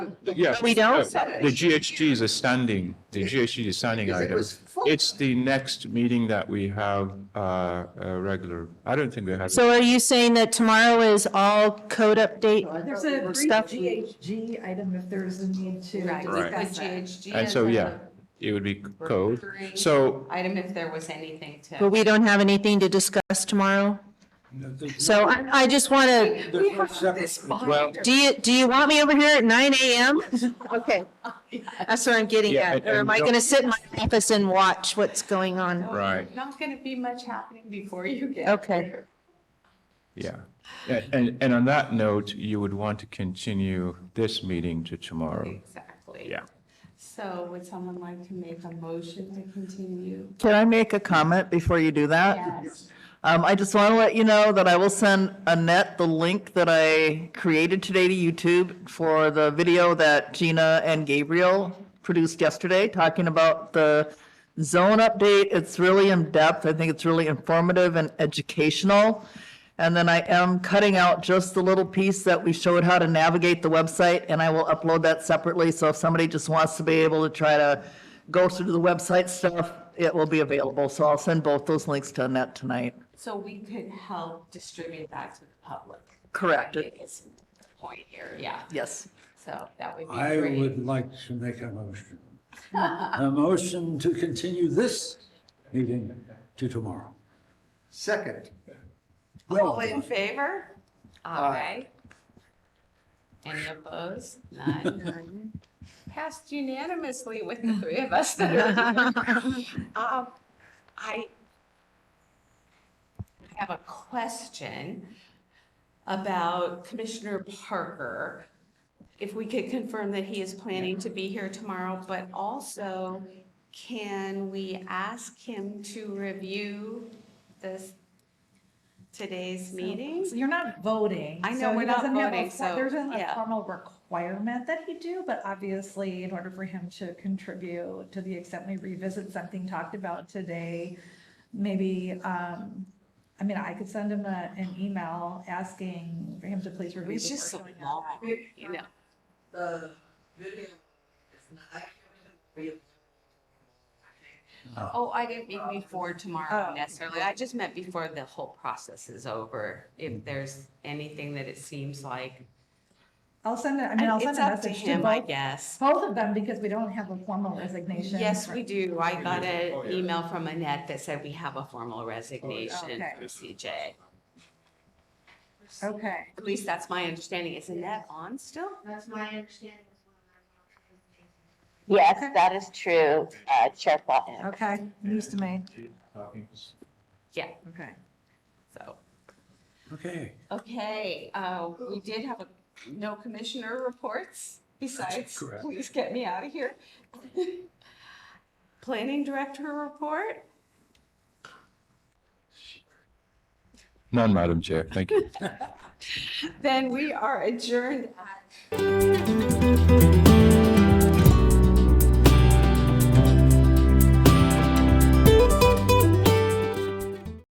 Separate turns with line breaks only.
yes.
We don't?
The GHG is a standing, the GHG is a standing
Because it
item.
was full.
It's the next meeting that we have, uh, uh, regular, I don't think we have.
So are you saying that tomorrow is all code update?
There's a brief
Stuff.
GHG item if there's a need to
Right.
discuss
With
that.
GHG.
And so, yeah, it would be code.
Three.
So,
Item if there was anything
But
to.
we don't have anything to discuss tomorrow? So I, I just want to,
There's no separate.
well,
do you, do you want me over here at nine AM? Okay. That's what I'm getting
Yeah,
at.
and-
Or am
and
I
don't-
going to sit in my office and watch what's going on?
right.
Oh, Not going to be much happening before you get.
Okay.
here.
Yeah, A- and, and on that note, you would want to continue this meeting to tomorrow.
Exactly.
Yeah.
So would someone like to make a motion to continue?
Can I make a comment before you do that?
Yes.
Um, I just want to let you know that I will send Annette the link that I created today to YouTube for the video that Gina and Gabriel produced yesterday, talking about the zone update. It's really in-depth. I think it's really informative and educational. And then I am cutting out just the little piece that we showed how to navigate the website, and I will upload that separately. So if somebody just wants to be able to try to go through the website stuff, it will be available. So I'll send both those links to Annette tonight.
So we could help distribute that to the public.
Correct.
It is the point here, yeah.
Yes.
So that would be
I
great.
would like to make a motion. A motion to continue this meeting to tomorrow.
Second,
All in favor? Aye. Any opposed? None. Passed unanimously with the three of us that are here. Um, I have a question about Commissioner Parker. If we could confirm that he is planning to be here tomorrow, but also can we ask him to review this, today's meeting?
So You're not voting.
I know
so he
we're not
doesn't have a
voting,
for-
so,
There's isn't
yeah.
a formal requirement that he do, but obviously in order for him to contribute to the extent we revisit something talked about today, maybe, um, I mean, I could send him a, an email asking for him to please
It
review.
was just
before
so
showing up.
long, you know.
the video is not, I can't remember.
Oh, I didn't mean before tomorrow
Oh.
necessarily. I just meant before the whole process is over. If there's anything that it seems like.
I'll send it, I mean, I'll send
It's
a
up to
message to
him, I
both,
guess.
both of them because we don't have a formal resignation.
Yes,
for-
we do. I got
Oh,
an
yeah.
email from Annette that said we have a formal resignation
Okay.
from CJ.
Okay.
At least that's my understanding. Is Annette on still?
That's my understanding.
Yes, that is true, uh, Chair Plotnick.
Okay, news to me.
Yeah,
Okay.
so,
Okay,
okay, uh, we did have a, no commissioner reports besides,
correct.
please get me out of here. Planning director report?
None, Madam Chair, thank you.
Then we are adjourned at